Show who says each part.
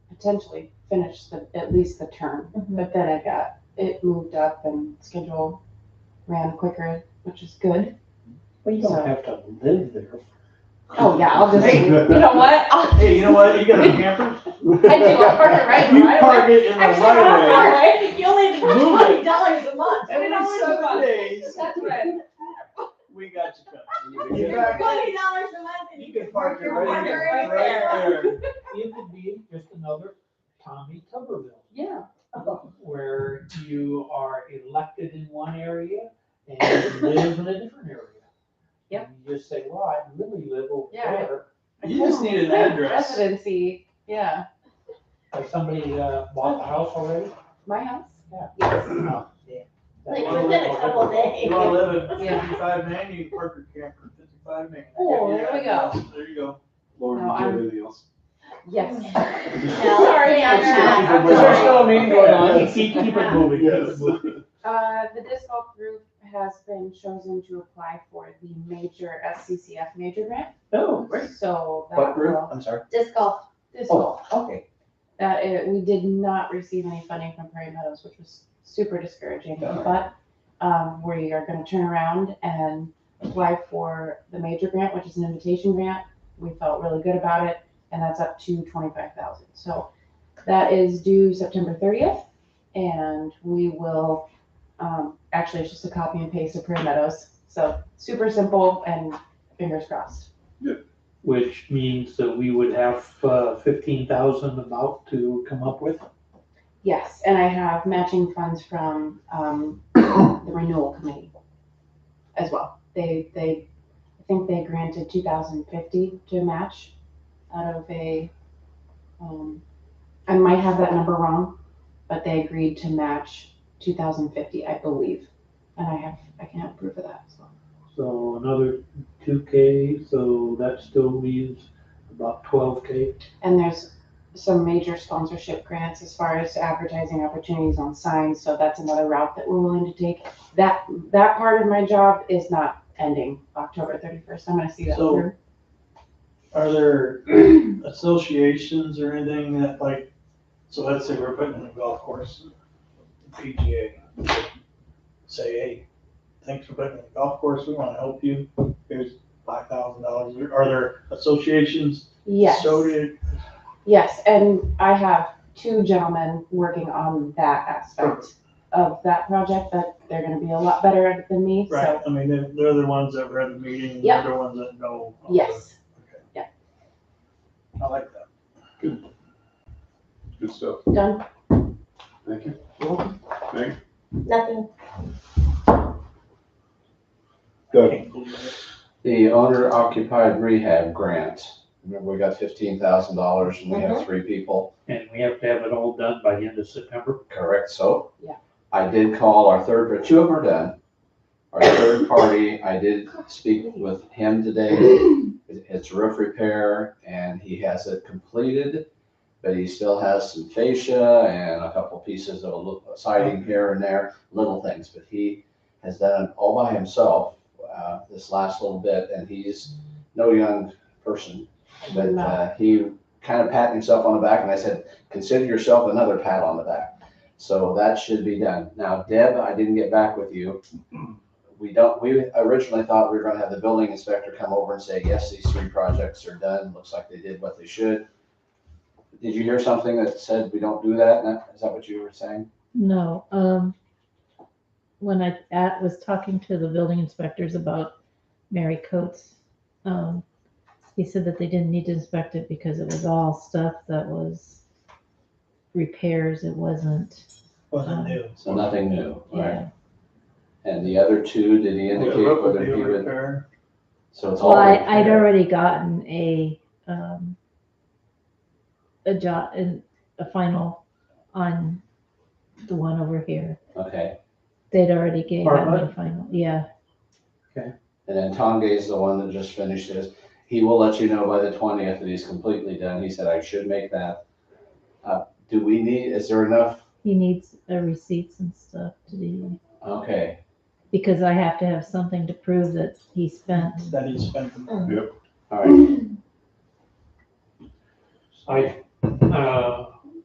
Speaker 1: potentially finish the, at least the term. But then I got it moved up and schedule ran quicker, which is good.
Speaker 2: Well, you
Speaker 1: So-
Speaker 2: don't have to live there.
Speaker 1: Oh, yeah, I'll just,
Speaker 3: Hey.
Speaker 1: you know what? I'll-
Speaker 3: Hey, you know what? You got a camper?
Speaker 1: I do, I park it right in the
Speaker 3: You
Speaker 1: right of
Speaker 3: park it in the
Speaker 1: Actually, I'm
Speaker 3: right of way.
Speaker 1: sorry.
Speaker 4: You only have
Speaker 3: Move it.
Speaker 4: twenty dollars a month.
Speaker 3: Every
Speaker 4: $20 a
Speaker 3: seven
Speaker 4: month.
Speaker 3: days,
Speaker 1: That's right.
Speaker 3: we got you covered.
Speaker 2: You
Speaker 4: For twenty dollars a month and you can park your
Speaker 3: right
Speaker 4: camper right
Speaker 3: there,
Speaker 4: there.
Speaker 3: right there.
Speaker 2: It could be just another Tommy Tuberville,
Speaker 1: Yeah,
Speaker 2: where you are elected in one area and you live in a different area.
Speaker 1: Yep.
Speaker 2: And You just say, well, I really live over
Speaker 1: Yeah, right.
Speaker 2: there,
Speaker 3: You just need an address.
Speaker 1: residency, yeah.
Speaker 2: Has somebody uh, bought the house already?
Speaker 1: My house?
Speaker 2: Yeah.
Speaker 1: Yes.
Speaker 2: No. Yeah.
Speaker 4: Like within a couple
Speaker 3: You
Speaker 4: days.
Speaker 3: wanna live at
Speaker 1: Yeah.
Speaker 3: fifty-five Main, you can park your camper at fifty-five Main.
Speaker 1: Oh, there we go.
Speaker 3: There you go.
Speaker 5: Lauren,
Speaker 1: No,
Speaker 5: did you
Speaker 1: I'm-
Speaker 5: have anything else?
Speaker 1: Yes.
Speaker 4: Sorry, I'm
Speaker 1: That's
Speaker 4: not.
Speaker 3: Is there
Speaker 4: I'm
Speaker 3: still a meeting
Speaker 4: sorry.
Speaker 3: going on? Keep, keep it moving. keep it
Speaker 5: Yes.
Speaker 3: moving.
Speaker 1: Uh, the disc golf group has been chosen to apply for the major SCCF major grant,
Speaker 3: No, great.
Speaker 1: so that will.
Speaker 5: What group? I'm sorry.
Speaker 4: Disc golf.
Speaker 1: Disc golf.
Speaker 5: Oh, okay.
Speaker 1: That, uh, we did not receive any funding from Prairie Meadows, which was super discouraging,
Speaker 5: Darn.
Speaker 1: but, um, we are gonna turn around and apply for the major grant, which is an invitation grant. We felt really good about it, and that's up to twenty-five thousand, so that is due September thirtieth, and we will, um, actually, it's just a copy and paste of Prairie Meadows, so super simple and fingers crossed.
Speaker 2: Which means that we would have uh, fifteen thousand about to come up with.
Speaker 1: Yes, and I have matching funds from um, the renewal committee as well. They, they, I think they granted two thousand fifty to match out of a, um, I might have that number wrong, but they agreed to match two thousand fifty, I believe. And I have, I can have proof of that as well.
Speaker 2: So another two K, so that still leaves about twelve K.
Speaker 1: And there's some major sponsorship grants as far as advertising opportunities on signs, so that's another route that we're willing to take. That, that part of my job is not ending October thirty-first, I'm gonna see that
Speaker 3: So-
Speaker 1: through.
Speaker 3: Are there associations or anything that like, so let's say we're putting in a golf course, PGA. Say, hey, thanks for putting in a golf course, we wanna help you, here's five thousand dollars, are there associations?
Speaker 1: Yes,
Speaker 3: So did,
Speaker 1: yes, and I have two gentlemen working on that aspect of that project, that they're gonna be a lot better at it than me,
Speaker 3: right,
Speaker 1: so,
Speaker 3: I mean, they're, they're the ones that were at the meeting,
Speaker 1: Yep.
Speaker 3: they're the ones that know.
Speaker 1: yes.
Speaker 3: Okay.
Speaker 1: Yeah.
Speaker 3: I like that.
Speaker 5: Good stuff.
Speaker 1: Done,
Speaker 5: Thank you.
Speaker 4: Nothing.
Speaker 6: Good. The owner occupied rehab grant. Remember, we got fifteen thousand dollars and we have three people,
Speaker 2: And we have to have it all done by the end of September.
Speaker 6: correct? So.
Speaker 1: Yeah.
Speaker 6: I did call our third, two of them are done. Our third party, I did speak with him today. It- It's roof repair and he has it completed, but he still has some fascia and a couple pieces of a little siding here and there, little things, but he has done it all by himself, uh, this last little bit, and he's no young person. But,
Speaker 1: No.
Speaker 6: uh, he kind of patted himself on the back and I said, consider yourself another pat on the back. So that should be done. Now, Deb, I didn't get back with you. We don't, we originally thought we were gonna have the building inspector come over and say, yes, these three projects are done. Looks like they did what they should. Did you hear something that said we don't do that? Nat? Is that what you were saying?
Speaker 7: No, um, when I at, was talking to the building inspectors about Mary Coates, um, he said that they didn't need to inspect it because it was all stuff that was repairs. It wasn't,
Speaker 3: Wasn't new.
Speaker 6: So nothing new, right?
Speaker 7: yeah.
Speaker 6: And the other two, did he indicate whether he would,
Speaker 3: Repair.
Speaker 6: so it's all.
Speaker 7: Well, I, I'd
Speaker 6: repair.
Speaker 7: already gotten a, um, a job, a final on the one over here.
Speaker 6: Okay.
Speaker 7: They'd already gave that
Speaker 2: Apartment?
Speaker 7: a final, yeah.
Speaker 6: And then Tonge is the one that just finished his. He will let you know by the twentieth that he's completely done. He said, I should make that. Uh, do we need, is there enough?
Speaker 7: He needs uh, receipts and stuff to do.
Speaker 6: Okay,
Speaker 7: Because I have to have something to prove that he spent.
Speaker 3: That he spent the
Speaker 6: all right.
Speaker 2: I, uh,